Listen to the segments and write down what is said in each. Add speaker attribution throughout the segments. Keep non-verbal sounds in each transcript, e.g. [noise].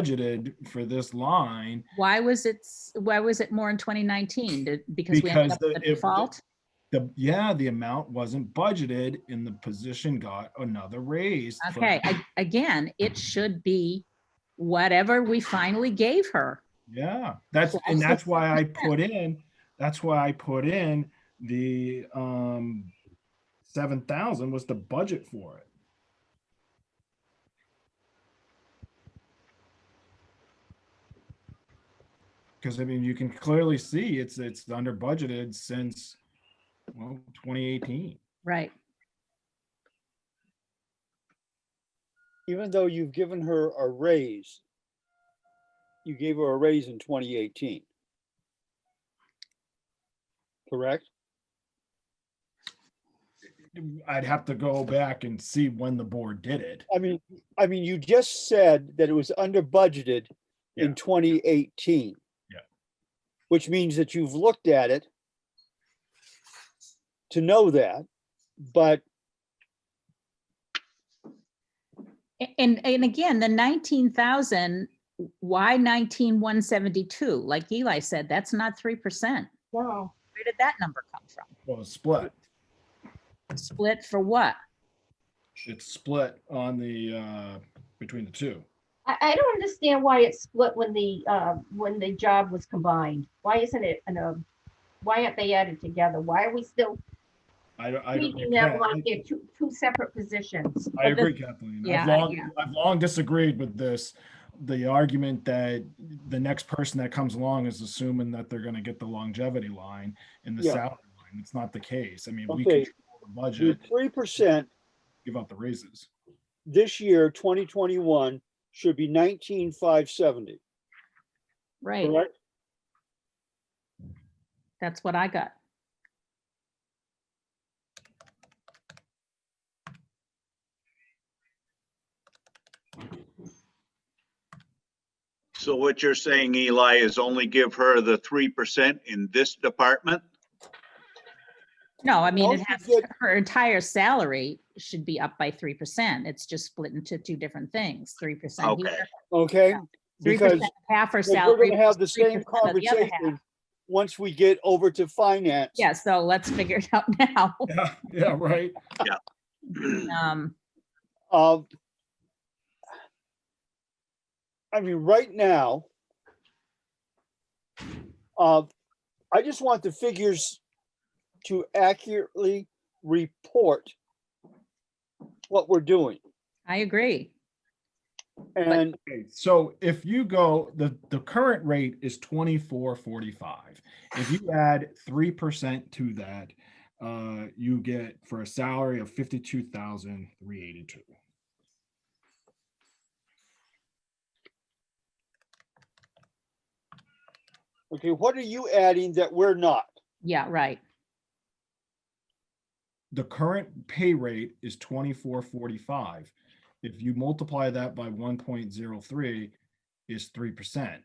Speaker 1: budgeted for this line
Speaker 2: Why was it, s- why was it more in 2019? Did- Because we
Speaker 1: Because
Speaker 2: ended up
Speaker 1: the-
Speaker 2: with
Speaker 1: if-
Speaker 2: a default?
Speaker 1: the yeah the amount wasn't budgeted and the position got another raise for-
Speaker 2: Okay, I- again, it should be whatever we finally gave her.
Speaker 1: yeah that's
Speaker 2: Well,
Speaker 1: and
Speaker 2: also-
Speaker 1: that's why
Speaker 2: [laughs]
Speaker 1: i put in that's why i put in the um 7000 was the budget for it because i mean you can clearly see it's it's under budgeted since well 2018
Speaker 2: Right.
Speaker 3: even though you've given her a raise, you gave her a raise in twenty eighteen. Correct?
Speaker 1: I'd have to go back and see when the board did it.
Speaker 3: I mean, I mean, you just said that it was under budgeted
Speaker 1: Yeah.
Speaker 3: in twenty eighteen.
Speaker 1: Yeah.
Speaker 3: Which means that you've looked at it to know that, but
Speaker 2: A- And, and again, the 19,000, why 19,172? Like Eli said, that's not 3%.
Speaker 4: No,
Speaker 2: Where did that number come from?
Speaker 1: Well, it's split.
Speaker 2: Split for what?
Speaker 1: It's split on the, uh, between the two.
Speaker 4: I, I don't understand why it's split when the, uh, when the job was combined. Why isn't it, an, um, why aren't they added together? Why are we still
Speaker 1: I, don't- I, don't-
Speaker 4: treating them like
Speaker 1: I
Speaker 4: they're two, two separate positions?
Speaker 1: agree, Kathleen. I've
Speaker 2: Yeah,
Speaker 1: long,
Speaker 2: yeah.
Speaker 1: I've long disagreed with this. The argument that the next person that comes along is assuming that they're gonna get the longevity line and the
Speaker 3: Yeah.
Speaker 1: salary line. It's not the case. I mean, we
Speaker 3: Okay.
Speaker 1: control the budget,
Speaker 3: your three percent
Speaker 1: give out the raises.
Speaker 3: this year, twenty twenty-one, should be nineteen five seventy,
Speaker 2: Right,
Speaker 3: correct?
Speaker 2: that's what I got.
Speaker 5: So what you're saying, Eli, is only give her the three percent in this department?
Speaker 2: No, I mean,
Speaker 3: Well,
Speaker 2: it
Speaker 3: you
Speaker 2: has,
Speaker 3: get-
Speaker 2: her entire salary should be up by 3%. It's just split into two different things, 3%
Speaker 5: Okay.
Speaker 2: here.
Speaker 3: Okay?
Speaker 2: Yeah. Three
Speaker 3: Because
Speaker 2: percent half her
Speaker 3: Because We're
Speaker 2: salary.
Speaker 3: gonna have the
Speaker 2: plus
Speaker 3: same
Speaker 2: 3% of the other half.
Speaker 3: conversation once we get over to finance.
Speaker 2: Yeah, so let's figure it out [laughs] now.
Speaker 1: Yeah, yeah, right.
Speaker 2: Um,
Speaker 3: Um, I mean, right now, uh, I just want the figures to accurately report what we're doing.
Speaker 2: I agree.
Speaker 3: And
Speaker 1: Okay, so if you go, the, the current rate is twenty-four forty-five. If you add three percent to that, uh, you get for a salary of fifty-two thousand three eighty-two.
Speaker 3: okay, what are you adding that we're not?
Speaker 2: Yeah, right.
Speaker 1: The current pay rate is twenty-four forty-five. If you multiply that by one point zero three is three percent,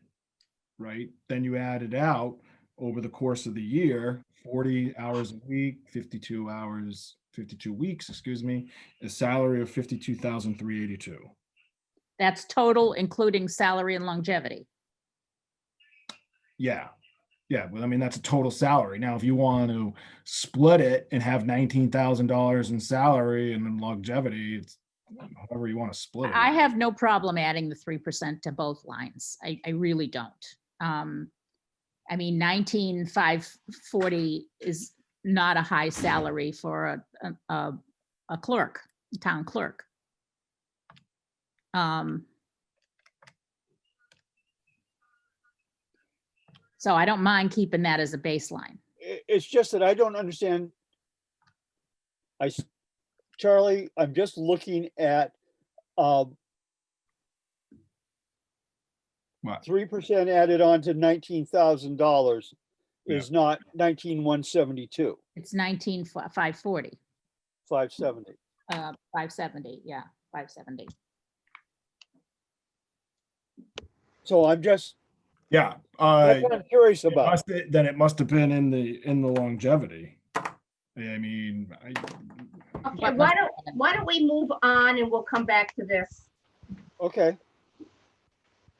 Speaker 1: right? Then you add it out over the course of the year, forty hours a week, fifty-two hours, fifty-two weeks, excuse me, a salary of fifty-two thousand three eighty-two.
Speaker 2: That's total, including salary and longevity.
Speaker 1: Yeah. Yeah, well, I mean, that's a total salary. Now, if you want to split it and have nineteen thousand dollars in salary and then longevity, it's however you want to split it.
Speaker 2: I have no problem adding the three percent to both lines. I, I really don't. Um, I mean, nineteen five forty is not a high salary for a, a- a, a clerk, town clerk. Um. So I don't mind keeping that as a baseline.
Speaker 3: I- it's just that I don't understand. I, s- Charlie, I'm just looking at, um,
Speaker 1: What?
Speaker 3: Three percent added on to nineteen thousand dollars
Speaker 1: Yeah.
Speaker 3: is not nineteen one seventy-two,
Speaker 2: It's nineteen five forty,
Speaker 3: five seventy.
Speaker 2: uh, five seventy, yeah, five seventy.
Speaker 3: So I'm just,
Speaker 1: Yeah, uh,
Speaker 3: that's what I'm curious
Speaker 1: it
Speaker 3: about.
Speaker 1: must- then it must have been in the, in the longevity. I mean, I,
Speaker 4: Okay, why don't, why don't we move on and we'll come back to this?
Speaker 3: Okay,